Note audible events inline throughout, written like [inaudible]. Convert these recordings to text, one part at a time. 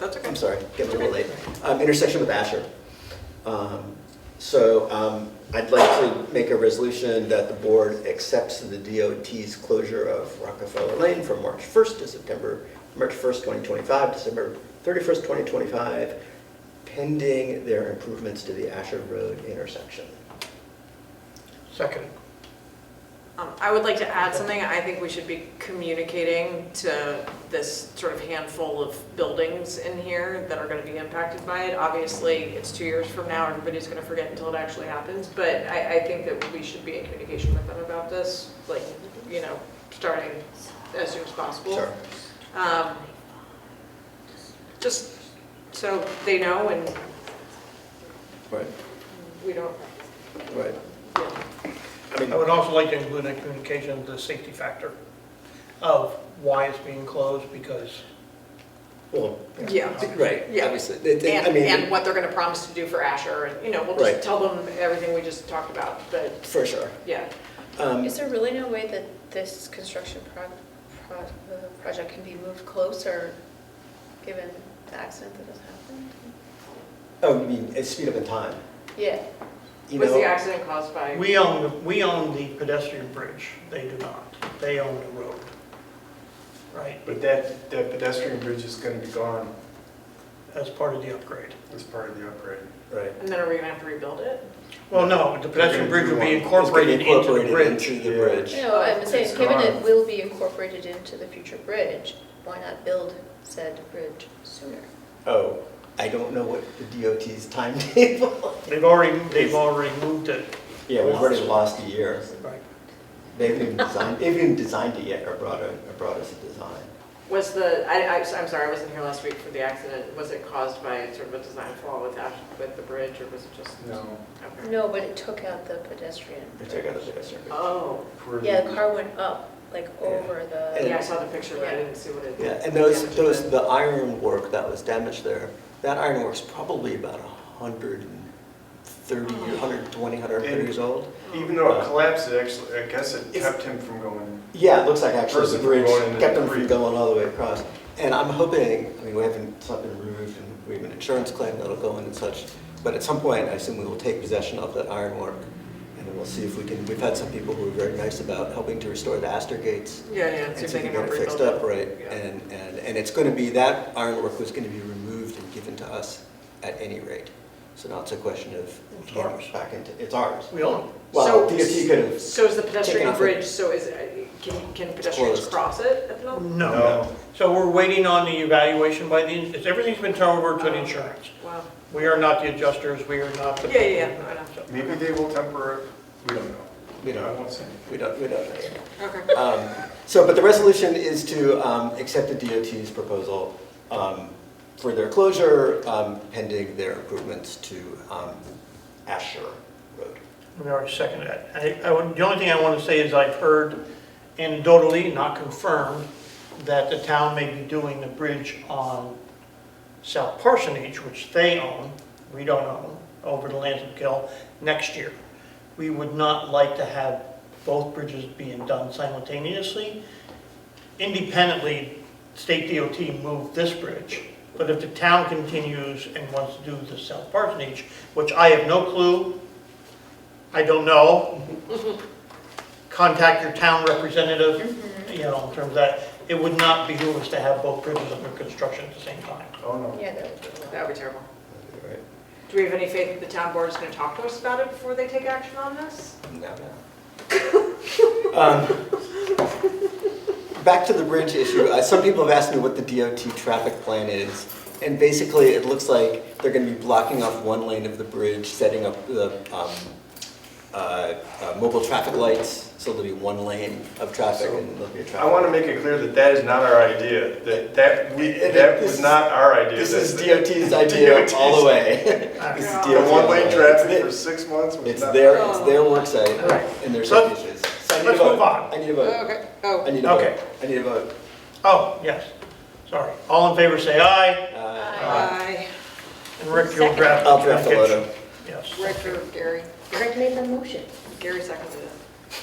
That's okay. I'm sorry, getting a little late. Um, intersection with Asher. Um, so, um, I'd like to make a resolution that the board accepts the DOT's closure of Rockefeller Lane from March 1st to September, March 1st, 2025, December 31st, 2025, pending their improvements to the Asher Road intersection. Second. Um, I would like to add something. I think we should be communicating to this sort of handful of buildings in here that are going to be impacted by it. Obviously, it's two years from now, everybody's going to forget until it actually happens, but I, I think that we should be in communication with them about this, like, you know, starting as soon as possible. Sure. Um, Just so they know and Right, we don't, right. you know, I mean, I would also like to include in communication the safety factor of why it's being closed, because well, yeah. right, Yeah. obviously. They- they- I And, mean, and what they're gonna promise to do for Asher, and, you know, we'll Right. just tell them everything we just talked about, but, For sure. yeah. Um, Is there really no way that this construction prog- pro- uh, project can be moved closer, given the accident that has happened? Oh, you mean, it's speed up in time, Yeah, you Was the know? accident caused by, we own, we own the pedestrian bridge, they do not. They own the road. Right, But that, that pedestrian bridge is gonna be gone as part of the upgrade. as part of the upgrade. Right. and then are we gonna have to rebuild it? Well, no, the pedestrian bridge will be It's incorporated into the Incorporated bridge. Into the bridge. no, I'm saying, It's given it gone. will be incorporated into the future bridge, why not build said bridge sooner? Oh, I don't know what the DOT's timetable. [laughs] They've already, they've already moved it. Yeah, we've already lost a year. Right. They haven't even designed, they haven't even designed it yet or brought, a- or brought us a design. Was the, I, I, I'm sorry, I wasn't here last week for the accident, was it caused by sort of a design flaw with Ash, with the bridge, or was it just? No. Okay. No, but it took out the pedestrian. They took out the pedestrian bridge. Oh, for the- Yeah, the car went up, like, Yeah. over yeah, I the, saw the picture, but I didn't see what it. Yeah, and those, damage those, did. the ironwork that was damaged there, that ironwork's probably about a hundred and thirty, a hundred and twenty, a hundred and thirty years old. Even though it collapsed, it actually, I guess it kept him from going. Yeah, it looks like actually Person the from bridge going into kept the them from creek. going all the way across. And I'm hoping, I mean, we haven't, it's not been removed, and we have an insurance claim that'll go in and such, but at some point, I assume we will take possession of that ironwork, and then we'll see if we can, we've had some people who are very nice about helping to restore the Astor gates. Yeah, yeah, And see if see they if we can get it help fixed rebuild up, it. right? Yeah. And, and, and it's gonna be, that ironwork was gonna be removed and given to us at any rate. So now it's a question of, It's getting ours. back into, it's ours. We own it. So- Well, DOT could have, So is the Taken pedestrian off the- bridge, so is, it- can, can pedestrians closed. cross it at the moment? No. So we're waiting on the evaluation by the, it's- everything's been turned over to the insurance. Mm-hmm. Wow, We are not the adjusters, we are not the. Yeah, yeah, yeah, I know. Maybe they will temper, it. we don't know. We don't know. I won't say anything. we don't, we don't know yet. okay. Um, So, but the resolution is to um, accept the DOT's proposal um, for their closure um, pending their improvements to um, Asher Road. We already seconded that. I- I would- The only thing I want to say is I've heard anecdotally, not confirmed, that the town may be doing the bridge on South Parsonage, which they own, we don't own, over the Lansing Kill, next year. We would not like to have both bridges being done simultaneously. Independently, state DOT moved this bridge, but if the town continues and wants to do the South Parsonage, which I have no clue, I don't know. Contact your town representative, you know, in terms of that. It would not behoove us to have both bridges under construction at the same time. Oh, no. yeah, that was. That would be terrible. Right? Do we have any faith that the town board is going to talk to us about it before they take action on this? No, no. Um, Back to the bridge issue, Uh, some people have asked me what the DOT traffic plan is. And basically, it looks like they're gonna be blocking off one lane of the bridge, setting up the um, uh, uh, mobile traffic lights, so there'll be one lane of traffic So, and there'll be a traffic. I want to make it clear that that is not our idea, that, that, we It- it- that this- was not our idea. This That- is [laughs] that- DOT's idea all the way. [laughs] This is The The DOT all one-way the way. traffic for It's six months the- was It's not- their, it's their work site and there's So- issues. So I need a let's vote. move on. I need a vote. Okay, I oh. need a vote. Okay. I need a vote. Oh, yes, sorry. All in favor, say aye. Uh, Aye. And Rick, you'll draft. I'll draft a letter. Yes, Director Gary, Greg made the motion. Gary seconded it.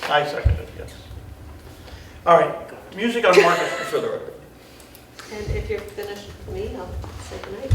I second it, yes. All right, music on Market Street. For the record. And if you're finished, me, I'll Second item.